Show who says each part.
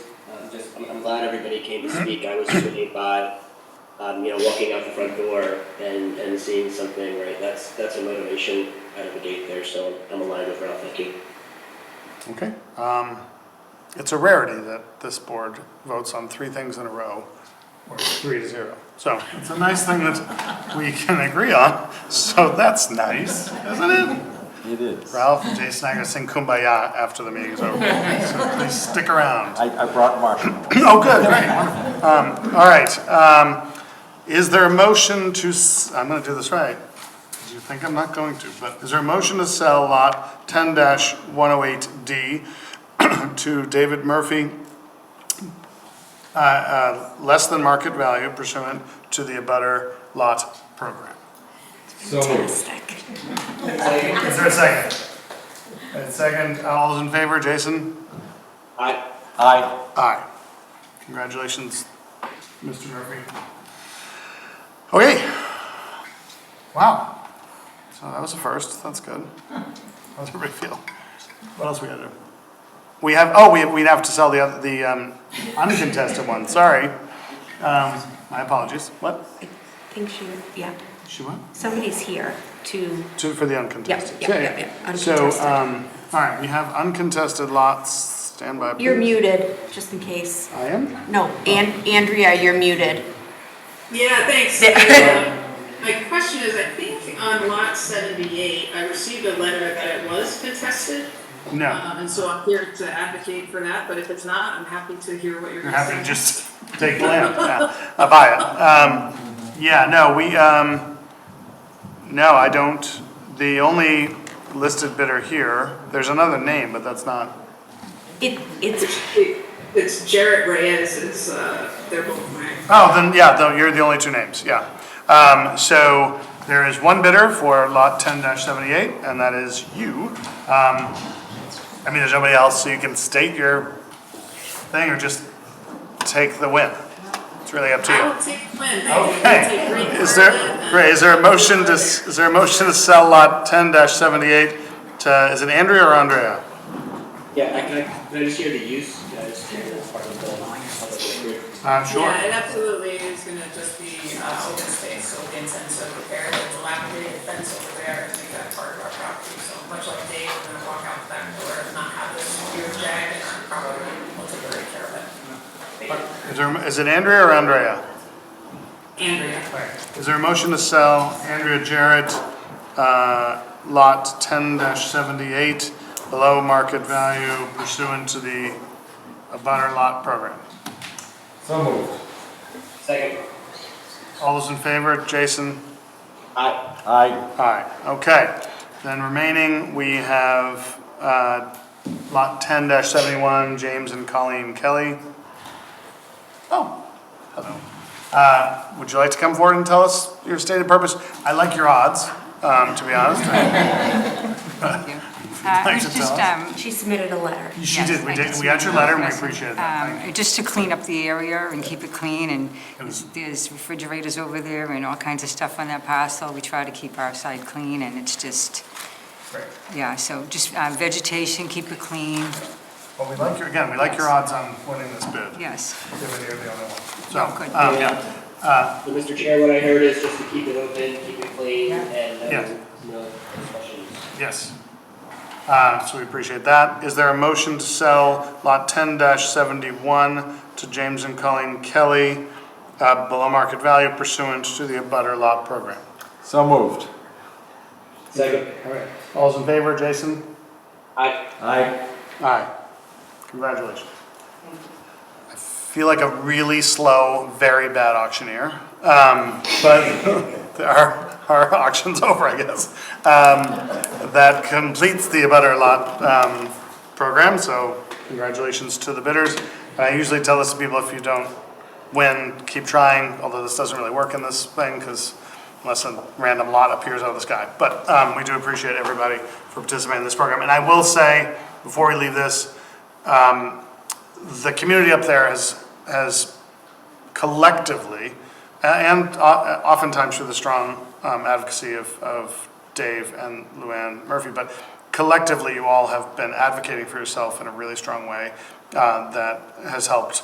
Speaker 1: Um, just, I'm, I'm glad everybody came to speak. I was really by, um, you know, walking out the front door and, and seeing something, right? That's, that's a motivation out of the gate there, so I'm aligned with Ralph, thank you.
Speaker 2: Okay, um, it's a rarity that this board votes on three things in a row, or three to zero. So it's a nice thing that we can agree on, so that's nice, isn't it?
Speaker 3: It is.
Speaker 2: Ralph, Jason, I gotta sing Kumbaya after the meeting's over, so please stick around.
Speaker 3: I, I brought marshmallows.
Speaker 2: Oh, good, great, wonderful. Um, all right, um, is there a motion to, s- I'm gonna do this right. Do you think I'm not going to, but is there a motion to sell lot ten one oh eight D to David Murphy? Uh, uh, less than market value pursuant to the abutter lot program? Is there a second? A second, all those in favor, Jason?
Speaker 1: I,
Speaker 3: I,
Speaker 2: Aye. Congratulations, Mr. Murphy. Okay. Wow. So that was a first, that's good. How's everybody feel? What else we gotta do? We have, oh, we, we'd have to sell the other, the, um, uncontested one, sorry. Um, my apologies, what?
Speaker 4: I think she, yeah,
Speaker 2: She what?
Speaker 4: somebody's here to,
Speaker 2: Two for the uncontested.
Speaker 4: Yep, yep, yep, yep,
Speaker 2: Yeah, yeah. So,
Speaker 4: uncontested.
Speaker 2: um, all right, we have uncontested lots, stand by please.
Speaker 4: you're muted, just in case.
Speaker 2: I am?
Speaker 4: No, An- Andrea, you're muted.
Speaker 5: Yeah, thanks. Um, My question is, I think on lot seventy-eight, I received a letter that it was contested.
Speaker 2: No,
Speaker 5: Um, and so I'm here to advocate for that, but if it's not, I'm happy to hear what you're
Speaker 2: You're
Speaker 5: gonna say.
Speaker 2: happy to just take the land, yeah, I buy it. Um, yeah, no, we, um, no, I don't, the only listed bidder here, there's another name, but that's not,
Speaker 4: It, it's,
Speaker 5: It- It's Jarrett Reyes, it's, uh, they're both my,
Speaker 2: oh, then, yeah, though, you're the only two names, yeah. Um, so there is one bidder for lot ten seventy-eight, and that is you. Um, I mean, there's nobody else, so you can state your thing or just take the win. It's really up to you.
Speaker 5: I will take Flynn, thank you. I'll take Green
Speaker 2: Okay. Is there,
Speaker 5: Carlin and-
Speaker 2: great, is there a motion to, s- is there a motion to sell lot ten seventy-eight to, is it Andrea or Andrea?
Speaker 1: yeah, I, can I, can I just hear the use, uh, just hear the part of the public record?
Speaker 2: Uh,
Speaker 5: Yeah, it absolutely is gonna just be, uh, open space, so the intent is to repair the dilapidated fence over there and make that part of our property, so much like Dave, we're gonna walk out the back door and not have this huge jag in our property, we'll take great care of it.
Speaker 2: Is there, is it Andrea or Andrea?
Speaker 5: Andrea,
Speaker 2: Is there a motion to sell Andrea Jarrett, uh, lot ten seventy-eight below market value pursuant to the abutter lot program?
Speaker 6: So moved.
Speaker 1: Second,
Speaker 2: All those in favor, Jason?
Speaker 1: I,
Speaker 3: I,
Speaker 2: Aye, okay. Then remaining, we have uh, Lot 10-71, James and Colleen Kelly. Oh, hello. Uh, Would you like to come forward and tell us your stated purpose? I like your odds, um, to be honest.
Speaker 7: Uh, it
Speaker 2: Thanks
Speaker 7: was
Speaker 2: for
Speaker 7: just,
Speaker 2: telling
Speaker 7: um,
Speaker 4: she submitted a letter.
Speaker 2: She
Speaker 7: Yes,
Speaker 2: did, we
Speaker 7: I
Speaker 2: did,
Speaker 7: just-
Speaker 2: we got your letter and we appreciated that.
Speaker 7: um, Just to clean up the area and keep it clean, and
Speaker 2: It was-
Speaker 7: there's refrigerators over there and all kinds of stuff on that parcel. We try to keep our side clean, and it's just,
Speaker 2: Great.
Speaker 7: yeah, so just uh, vegetation, keep it clean,
Speaker 2: Well, we like your, again, we like your odds on winning this bid.
Speaker 7: yes.
Speaker 2: Given you're the only one.
Speaker 7: Oh, good.
Speaker 2: So, um, yeah,
Speaker 1: so Mr. Chair, what I heard is just to keep it open, keep it clean,
Speaker 7: Yeah.
Speaker 1: and,
Speaker 2: Yes.
Speaker 1: um, no discussions.
Speaker 2: yes. Uh, So we appreciate that. Is there a motion to sell Lot 10-71 to James and Colleen Kelly uh, below market value pursuant to the abutter lot program?
Speaker 3: so moved.
Speaker 1: Second,
Speaker 2: All right. All's in favor, Jason?
Speaker 1: I,
Speaker 3: I,
Speaker 2: Aye. Congratulations. I feel like a really slow, very bad auctioneer, um, but our, our auction's over, I guess. Um, that completes the abutter lot, um, program, so congratulations to the bidders. And I usually tell this to people, if you don't win, keep trying, although this doesn't really work in this thing, because unless a random lot appears out of the sky. But um, we do appreciate everybody for participating in this program. And I will say, before we leave this, um, the community up there has, has collectively, a- and o- oftentimes through the strong um, advocacy of, of Dave and Luann Murphy, but collectively, you all have been advocating for yourself in a really strong way uh, that has helped